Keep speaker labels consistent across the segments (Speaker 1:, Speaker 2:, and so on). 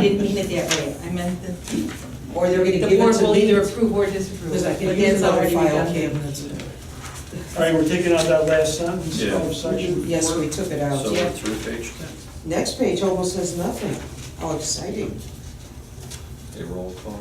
Speaker 1: didn't mean it that way, I meant that
Speaker 2: Or they're gonna
Speaker 1: the
Speaker 2: give
Speaker 1: board
Speaker 2: it to
Speaker 1: will
Speaker 2: me,
Speaker 1: either approve or disapprove.
Speaker 2: because I can
Speaker 1: but
Speaker 2: use
Speaker 1: that's
Speaker 2: another
Speaker 1: already
Speaker 2: file
Speaker 1: redundant.
Speaker 2: cabinet.
Speaker 3: All right, we're taking out that last sentence
Speaker 4: Yeah.
Speaker 3: of section.
Speaker 2: Yes,
Speaker 3: four.
Speaker 2: we took it
Speaker 4: So
Speaker 2: out.
Speaker 4: we're through page ten.
Speaker 2: Next page almost has nothing. How exciting.
Speaker 4: A roll call.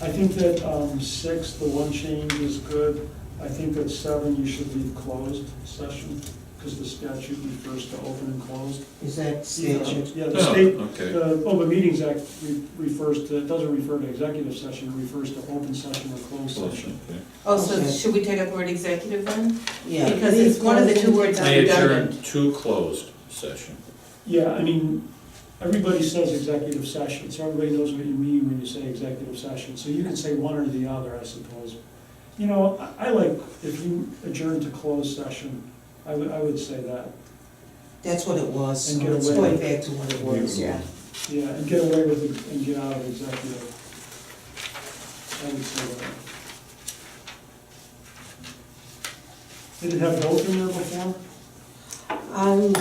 Speaker 3: I think that um, six, the one change is good. I think that seven, you should leave closed session, because the statute refers to open and closed.
Speaker 2: Is that statute?
Speaker 3: Yeah, the
Speaker 4: Oh,
Speaker 3: state,
Speaker 4: okay.
Speaker 3: the Open Meetings Act re- refers to, it doesn't refer to executive session, it refers to open session or closed session.
Speaker 4: Solution, okay.
Speaker 1: Oh, so
Speaker 2: Okay.
Speaker 1: should we take up the word executive then?
Speaker 2: Yeah.
Speaker 1: Because it's one of the two words on
Speaker 4: May adjourn
Speaker 1: redundant.
Speaker 4: to closed session.
Speaker 3: Yeah, I mean, everybody says executive session, so everybody knows what you mean when you say executive session. So you can say one or the other, I suppose. You know, I- I like, if you adjourn to closed session, I would, I would say that.
Speaker 2: That's what it was, so
Speaker 3: And get
Speaker 2: it's
Speaker 3: away.
Speaker 2: going back to what it was.
Speaker 4: Yeah.
Speaker 3: Yeah, and get away with it and get out of executive. I would say that. Did it have both in there before?
Speaker 2: Um,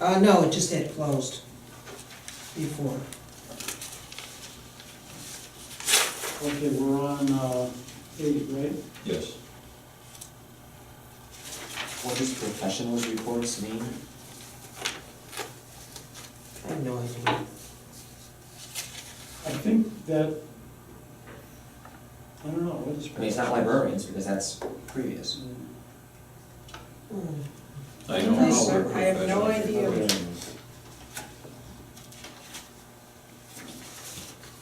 Speaker 2: uh, no, it just had closed before.
Speaker 3: Okay, we're on uh, eight, right?
Speaker 4: Yes.
Speaker 5: What does professional reports mean?
Speaker 2: I have no idea.
Speaker 3: I think that, I Mm, don't know, what is.
Speaker 5: I mean, it's not librarians, because that's previous.
Speaker 2: Hmm.
Speaker 4: I don't
Speaker 2: I
Speaker 1: I
Speaker 4: know. where
Speaker 1: have no
Speaker 4: professional
Speaker 1: idea.
Speaker 4: development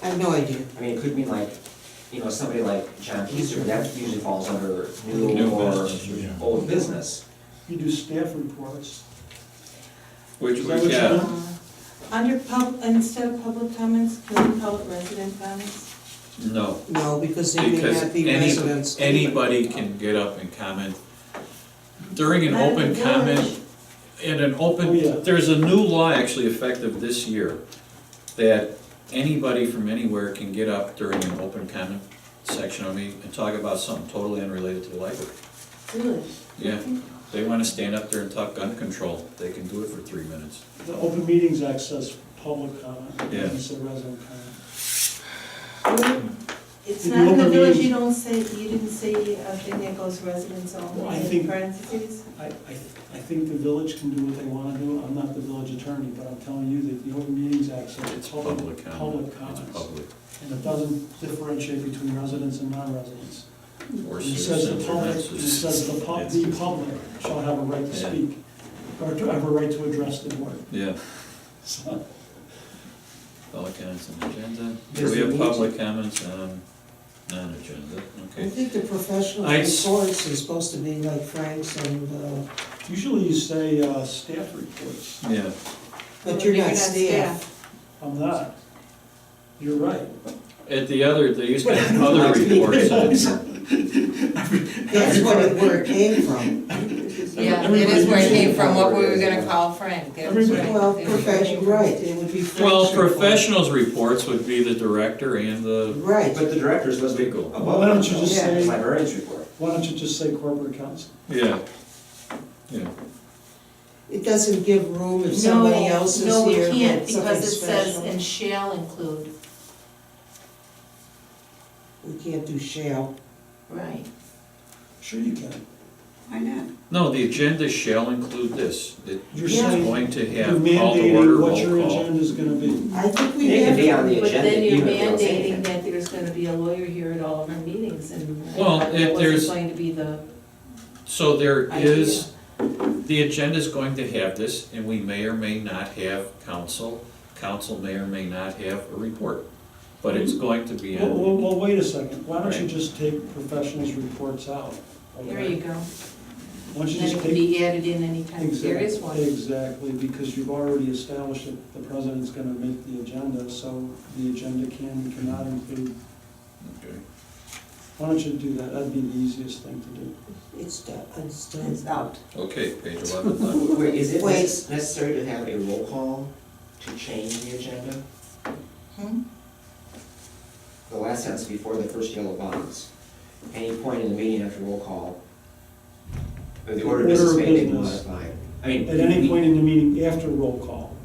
Speaker 2: I have no idea.
Speaker 5: I mean, it could mean like, you know, somebody like John Keister, but that usually falls under
Speaker 4: is.
Speaker 5: new
Speaker 4: New
Speaker 5: or
Speaker 4: business, yeah.
Speaker 5: old business.
Speaker 3: You do staff reports.
Speaker 4: Which
Speaker 3: Is
Speaker 4: we
Speaker 3: that what you
Speaker 4: got,
Speaker 3: want?
Speaker 1: Uh, Under pub, instead of public comments, could we call it resident comments?
Speaker 4: no,
Speaker 2: No, because they may not
Speaker 4: because
Speaker 2: be
Speaker 4: any,
Speaker 2: residents.
Speaker 4: anybody can get up and comment. During an
Speaker 1: Not at the
Speaker 4: open
Speaker 1: village.
Speaker 4: comment, in an
Speaker 3: Oh, yeah.
Speaker 4: open, there's a new law actually effective this year that anybody from anywhere can get up during an open comment section on me and talk about something totally unrelated to the library.
Speaker 1: Really?
Speaker 4: Yeah, they wanna stand up there and talk gun control, they can do it for three minutes.
Speaker 3: The Open Meetings Act says public comment,
Speaker 4: Yeah.
Speaker 3: and it's a resident comment.
Speaker 1: It's
Speaker 3: If you
Speaker 1: not in the
Speaker 3: open
Speaker 1: village,
Speaker 3: meeting-
Speaker 1: you don't say, you didn't say a thing that goes residents
Speaker 3: Well, I
Speaker 1: only in
Speaker 3: think-
Speaker 1: parentheses?
Speaker 3: I, I, I think the village can do what they wanna do, I'm not the village attorney, but I'm telling you that the Open Meetings Act says it's public,
Speaker 4: Public comment,
Speaker 3: public
Speaker 4: it's
Speaker 3: comments.
Speaker 4: public.
Speaker 3: And it doesn't differentiate between residents and non-residents.
Speaker 4: Or
Speaker 3: It says the
Speaker 4: citizens or
Speaker 3: public,
Speaker 4: not
Speaker 3: it says the pub,
Speaker 4: citizens.
Speaker 3: the public shall have a right to
Speaker 4: Yeah.
Speaker 3: speak, or to have a right to address the board.
Speaker 4: Yeah,
Speaker 3: So,
Speaker 4: public comments on agenda, do
Speaker 5: Does
Speaker 4: we
Speaker 5: it
Speaker 4: have
Speaker 5: need
Speaker 4: public comments on non-agenda,
Speaker 2: I
Speaker 4: okay.
Speaker 2: think the professional
Speaker 4: I s-
Speaker 2: reports is supposed to be like Frank's and, uh,
Speaker 3: Usually you say, uh, staff reports,
Speaker 4: Yeah,
Speaker 2: but you're not staff.
Speaker 3: I'm not. You're right.
Speaker 4: at the other, they used to have other reports on here.
Speaker 2: That's what it, where it came from.
Speaker 6: Yeah, it is where it came from, what we were gonna call Frank. It was
Speaker 3: Everybody-
Speaker 6: Frank.
Speaker 2: Well,
Speaker 6: It was
Speaker 2: professional,
Speaker 6: Frank.
Speaker 2: right, it would be.
Speaker 4: Well,
Speaker 2: Frank's report.
Speaker 4: professionals' reports would be the director and the,
Speaker 2: Right,
Speaker 5: But the director's supposed to be
Speaker 4: Legal.
Speaker 5: above.
Speaker 3: Why don't you just
Speaker 2: Yeah.
Speaker 3: say,
Speaker 5: Librarians report.
Speaker 3: why don't you just say corporate counsel?
Speaker 4: yeah, yeah.
Speaker 2: it doesn't give room if somebody else is here.
Speaker 1: No, we
Speaker 2: but
Speaker 1: can't, because it
Speaker 2: something
Speaker 1: says,
Speaker 2: special.
Speaker 1: and shall include.
Speaker 2: We can't do shall.
Speaker 1: Right.
Speaker 3: Sure you can.
Speaker 7: Why not?
Speaker 4: No, the agenda shall include this, that
Speaker 3: You're
Speaker 4: she's
Speaker 3: saying
Speaker 4: going to
Speaker 3: You're
Speaker 4: have call to order,
Speaker 3: mandating what your
Speaker 4: roll call.
Speaker 3: agenda's gonna be.
Speaker 2: I think we
Speaker 5: It
Speaker 2: have.
Speaker 5: can be on the
Speaker 1: But
Speaker 5: agenda,
Speaker 1: then you're
Speaker 5: even if they don't say
Speaker 1: mandating
Speaker 5: anything.
Speaker 1: that there's gonna be a lawyer here at all of our meetings and.
Speaker 4: Well,
Speaker 1: that
Speaker 4: if
Speaker 1: wasn't
Speaker 4: there's-
Speaker 1: Going to be the,
Speaker 4: So there
Speaker 1: I
Speaker 4: is, the agenda's going to have this, and we may or may not have council. Council may or may not have a report, but
Speaker 3: Mm-hmm.
Speaker 4: it's going to be
Speaker 3: Well, well,
Speaker 4: on.
Speaker 3: well, wait a second, why don't you
Speaker 4: Right.
Speaker 3: just take professionals' reports out?
Speaker 1: there you go.
Speaker 3: Why don't you
Speaker 1: Then
Speaker 3: just
Speaker 1: it can
Speaker 3: take?
Speaker 1: be added in anytime, there is
Speaker 3: Exact-
Speaker 1: one.
Speaker 3: Exactly, because you've already established that the president's gonna make the agenda, so the agenda can, and cannot include.
Speaker 4: Okay.
Speaker 3: Why don't you do that, that'd be the easiest thing to do.
Speaker 2: It's done, it's done.
Speaker 7: It's out.
Speaker 4: Okay, page eleven, done.
Speaker 5: Wait, is it
Speaker 2: Wait.
Speaker 5: necess- necessary to have a roll call to change the agenda?
Speaker 1: Hmm?
Speaker 5: The last sentence before the first yellow box. Any point in the meeting after roll call, or the order of
Speaker 3: Order of
Speaker 5: business may be
Speaker 3: business.
Speaker 5: modified. I mean.
Speaker 3: At any
Speaker 5: we-
Speaker 3: point in the meeting after roll call.